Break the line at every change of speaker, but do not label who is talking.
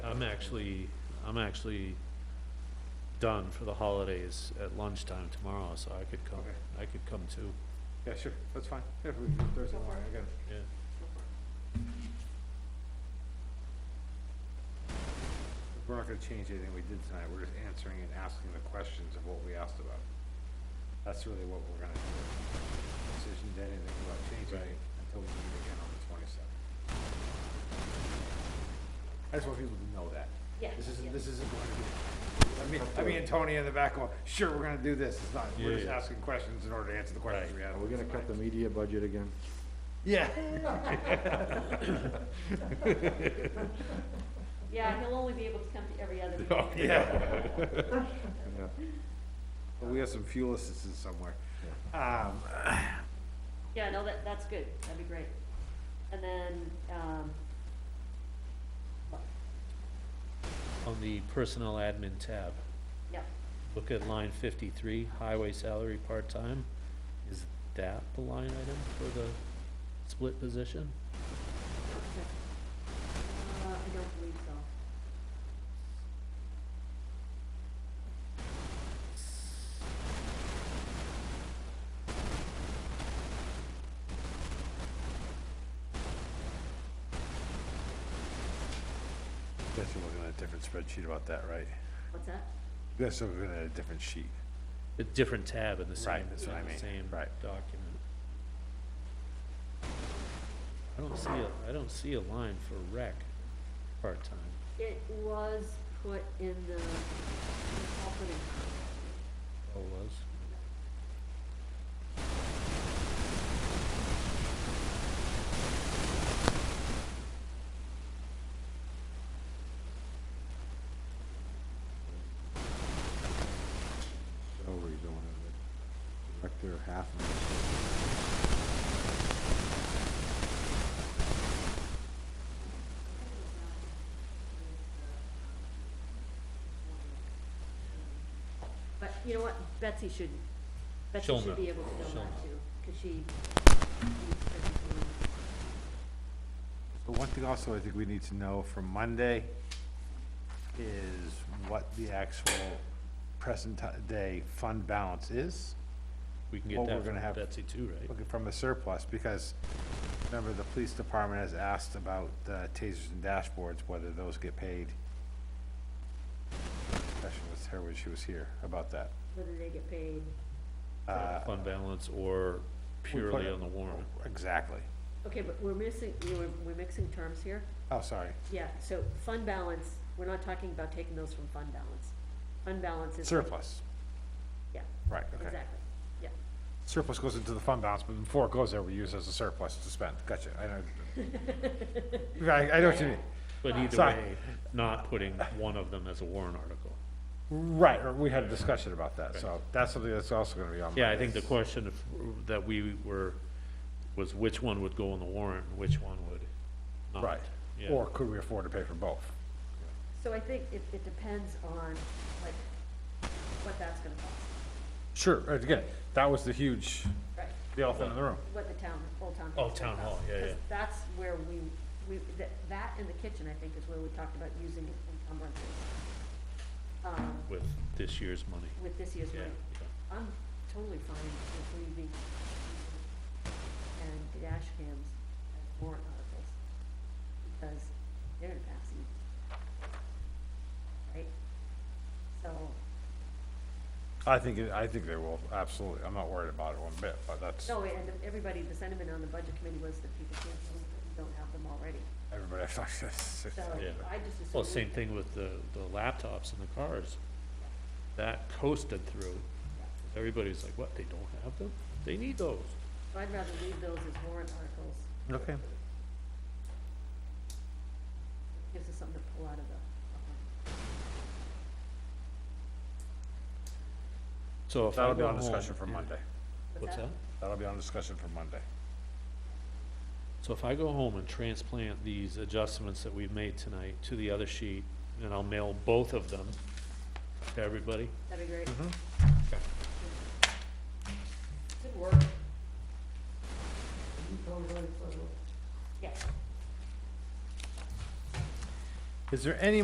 I'm actually, I'm actually done for the holidays at lunchtime tomorrow, so I could come,
Okay.
I could come too,
Yeah, sure, that's fine. Yeah, we can do Thursday morning again.
yeah.
We're not gonna change anything we did tonight. We're just answering and asking the questions of what we asked about. That's really what we're gonna do. Decision to anything about changing it until we meet again on the twenty-seventh. I just want people to know that.
Yeah,
This isn't,
yeah.
this isn't going to be, I mean, I mean, Tony in the back going, sure, we're gonna do this. It's not, we're just
Yeah.
asking questions in order to answer the questions we had.
Are we gonna cut the media budget again?
Yeah.
Yeah, he'll only be able to come to every other
Oh,
meeting.
yeah.
Yeah.
But we have some fuel assistance somewhere. Um,
Yeah, no, that, that's good, that'd be great. And then, um,
On the personnel admin tab,
yeah,
look at line fifty-three, highway salary part-time. Is that the line item for the split position?
okay. Uh, I don't believe so.
Guess we're looking at a different spreadsheet about that, right?
What's that?
Guess we're looking at a different sheet.
A different tab in the
Right,
same,
that's what I
in the
mean,
same document.
right.
I don't see a, I don't see a line for rec part-time.
It was put in the, I'll put it,
Oh, it was?
Oh, we're going with it. Director half of
but you know what, Betsy should, Betsy
She'll
should
know.
be able to know
She'll
that
know.
too, cause she. reads everything.
But one thing also I think we need to know from Monday is what the actual present ti- day fund balance is,
We can get
Well,
that
we're gonna
from
have-
Betsy too, right?
looking from a surplus, because remember, the police department has asked about the tasers and dashboards, whether those get paid. Discussion with her when she was here about that.
Whether they get paid,
Uh,
Fund balance or purely
it-
on the warrant.
Uh, Exactly.
okay, but we're missing, you know, we're- we're mixing terms here.
Oh, sorry.
Yeah, so fund balance, we're not talking about taking those from fund balance. Fund balance is.
Surplus,
Yeah,
right, okay.
exactly, yeah.
Surplus goes into the fund balance, but before it goes there, we use it as a surplus to spend. Gotcha, I know. Right, I know what you mean.
But either
Sorry.
way, not putting one of them as a warrant article.
Right, or we had a discussion about that, so that's something that's also gonna be on.
Yeah, I
Monday.
think the question of, that we were, was which one would go on the warrant and which one would not.
Right,
Yeah.
or could we afford to pay for both?
So I think it, it depends on, like, what that's gonna cost,
Sure, uh, again, that was the huge,
right?
the elephant in the room.
What the town, Old Town.
Oh,
Hall's gonna
Town Hall,
cost,
yeah,
'cause
yeah.
That's where we, we, that, that and the kitchen, I think, is where we talked about using encumbrances. Um,
With this year's money.
with this year's
Yeah,
money.
yeah.
I'm totally fine with leaving and the dash cams as warrant articles, because they're gonna pass you. Right? So,
I think, it- I think they will, absolutely. I'm not worried about it one bit, but that's,
no, and everybody, the sentiment on the budget committee was that people can't, vote if they don't have them already,
everybody, I've talked
so
to.
Yeah.
I just assume.
Well, same thing with the, the laptops and the cars. That coasted through. Everybody's like, what, they don't have them? They need those.
So I'd rather leave those as warrant articles,
Okay.
gives us something to pull out of the.
So if I
That'll be
go
on
home-
discussion for
yeah.
Monday.
What's that?
That'll be on discussion for Monday.
So if I go home and transplant these adjustments that we've made tonight to the other sheet, and I'll mail both of them to everybody?
That'd be great. Good work. Yes.
Is there any